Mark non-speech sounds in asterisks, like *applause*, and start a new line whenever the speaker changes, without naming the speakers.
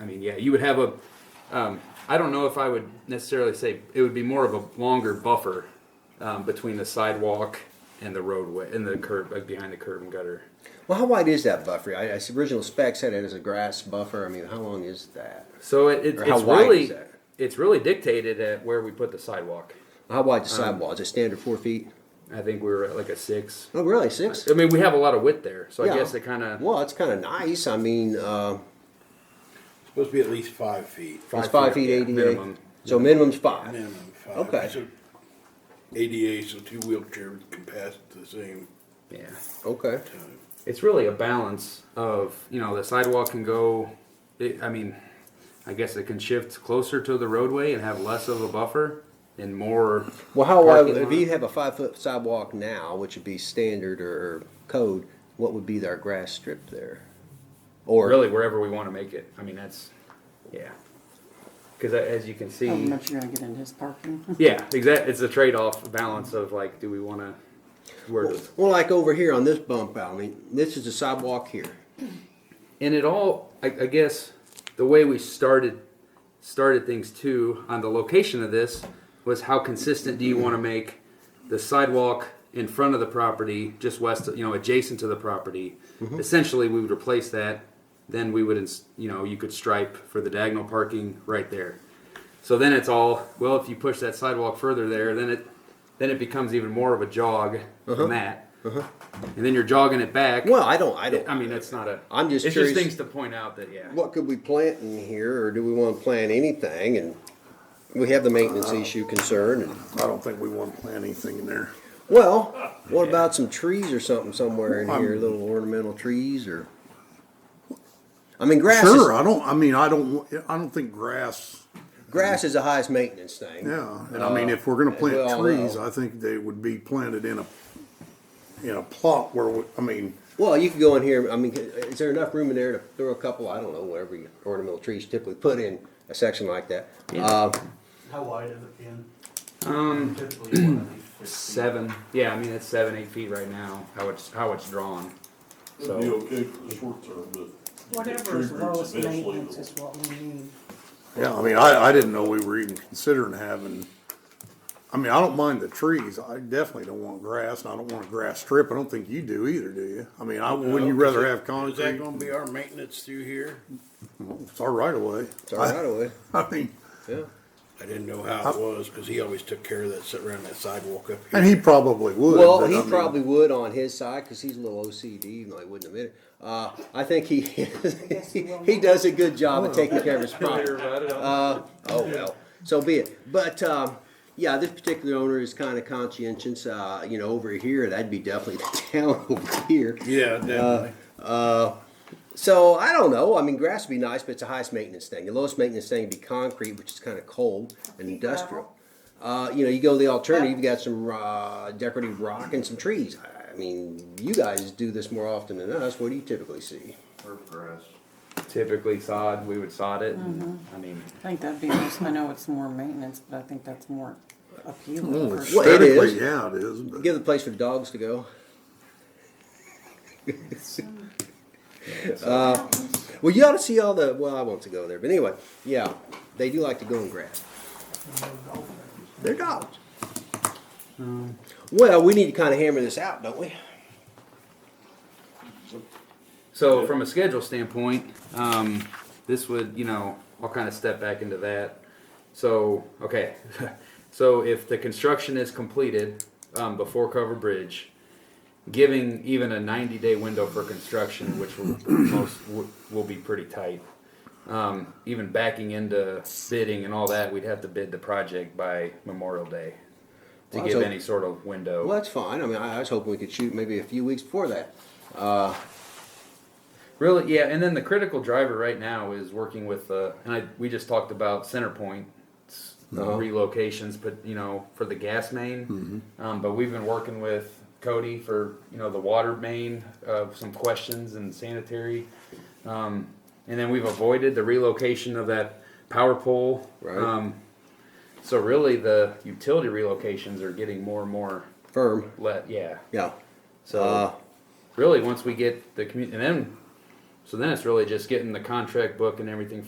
I mean, yeah, you would have a. Um, I don't know if I would necessarily say it would be more of a longer buffer um, between the sidewalk and the roadway and the curb like behind the curb and gutter.
Well, how wide is that buffer? I, I see original specs had it as a grass buffer. I mean, how long is that?
So it, it,
Or how
it's
wide
really
is that?
it's really dictated at where we put the sidewalk.
How wide the
Um,
sidewall? Is it standard four feet?
I think we were at like a six.
Oh, really? Six?
I mean, we have a lot of width there, so
Yeah.
I guess it kind of
Well, it's kind of nice. I mean, uh,
Supposed to be at least five feet.
it's five feet,
yeah,
ADA.
minimum.
So minimum's five.
Minimum five.
Okay.
So ADA, so two wheelchairs can pass at the same
yeah.
Okay.
time.
it's really a balance of you know the sidewalk can go it, i mean i guess it can shift closer to the roadway and have less of a buffer and more
Well, how wide?
Parking
If
lot.
you have a five foot sidewalk now, which would be standard or code, what would be our grass strip there? Or
really wherever we want to make it i mean that's yeah because as you can
How
see
much you're gonna get in his parking? *laughs*
yeah exact it's a trade-off balance of like do we want to where does
well, like over here on this bump out. I mean, this is the sidewalk here.
and it all I, I guess the way we started started things too on the location of this was how consistent do you want to make the sidewalk in front of the property just west of, you know adjacent to the property essentially we would replace that then we would ins- you know you could stripe for the diagonal parking right there so then it's all well if you push that sidewalk further there then it then it becomes even more of a jog than that and then you're jogging it back
Well, I don't. I don't.
I mean, that's not a.
I'm just
It's
curious-
just things to point out that yeah.
what could we plant in here, or do we want to plant anything? And we have the maintenance
Uh-huh.
issue concern. And,
I don't think we want to plant anything in there.
well, what about some trees or something somewhere in here, little ornamental trees or? I mean, grass.
Sure,
Is,
I don't, I mean, I don't, I don't think grass,
grass is the highest maintenance thing.
yeah, and I mean, if we're gonna plant
well,
trees,
well.
I think they would be planted in a, in a plot where, we- I mean,
Well, you could go in here. I mean, is there enough room in there to throw a couple? I don't know. Whatever you- ornamental trees typically put in a section like that. Uh,
How wide is it, Ken?
Um,
Typically, one of these fifteen.
seven. Yeah, I mean it's seven, eight feet right now. How it's how it's drawn.
It'd be
So
okay for the short term, but.
Whatever
tree
is
roots
lowest
eventually
maintenance
will-
is what we need.
yeah, I mean, I, I didn't know we were even considering having, I mean, I don't mind the trees, I definitely don't want grass, and I don't want a grass strip, I don't think you do either, do you? I mean, I, wouldn't you rather have concrete?
Is that gonna be our maintenance through here?
It's our right of way.
it's all right away.
*laughs* I mean,
Yeah.
I didn't know how it was, cause he always took care of that, sit around that sidewalk up here.
and he probably would.
Well,
but
he
I mean,
probably would on his side because he's a little OCD. No, he wouldn't admit it. Uh, I think he *laughs* he does a good job of taking care of his property. Uh, oh well, so be it. But um, yeah, this particular owner is kind of conscientious. Uh, you know, over here that'd be definitely the *laughs* town over here.
Yeah, definitely.
So I don't know. I mean, grass would be nice, but it's the highest maintenance thing. The lowest maintenance thing would be concrete, which is kind of cold and industrial. Uh, you know, you go the alternative. You've got some uh, decorative rock and some trees. I- I mean, you guys do this more often than us. What do you typically see?
Or grass.
typically sod, we would sod it. and,
Mm-hmm.
I mean,
I think that'd be, most- I know it's more maintenance, but I think that's more appealing.
well,
for-
Well, it is.
aesthetically, yeah, it is. But
Give the place for the dogs to go. uh, well, you ought to see all the. Well, I want to go there, but anyway, yeah, they do like to go in grass. They're dogs. Well, we need to kind of hammer this out, don't we?
so from a schedule standpoint, um, this would you know I'll kind of step back into that. So okay, *laughs* so if the construction is completed um, before Cover Bridge, giving even a 90 day window for construction, which will, *clears throat* most will, will be pretty tight. Um, even backing into bidding and all that, we'd have to bid the project by Memorial Day to
Well,
give
so-
any sort of window.
Well, that's fine. I mean, I I was hoping we could shoot maybe a few weeks before that. Uh,
Really, yeah. And then the critical driver right now is working with, uh, and I, we just talked about center point relocations, but you know, for the gas main. Um, but we've been working with Cody for you know the water main, uh, some questions and sanitary, um, and then we've avoided the relocation of that power pole.
Right.
Um, so really, the utility relocations are getting more and more
firm,
let. Yeah.
yeah.
So
Uh,
really, once we get the community, and then so then it's really just getting the contract book and everything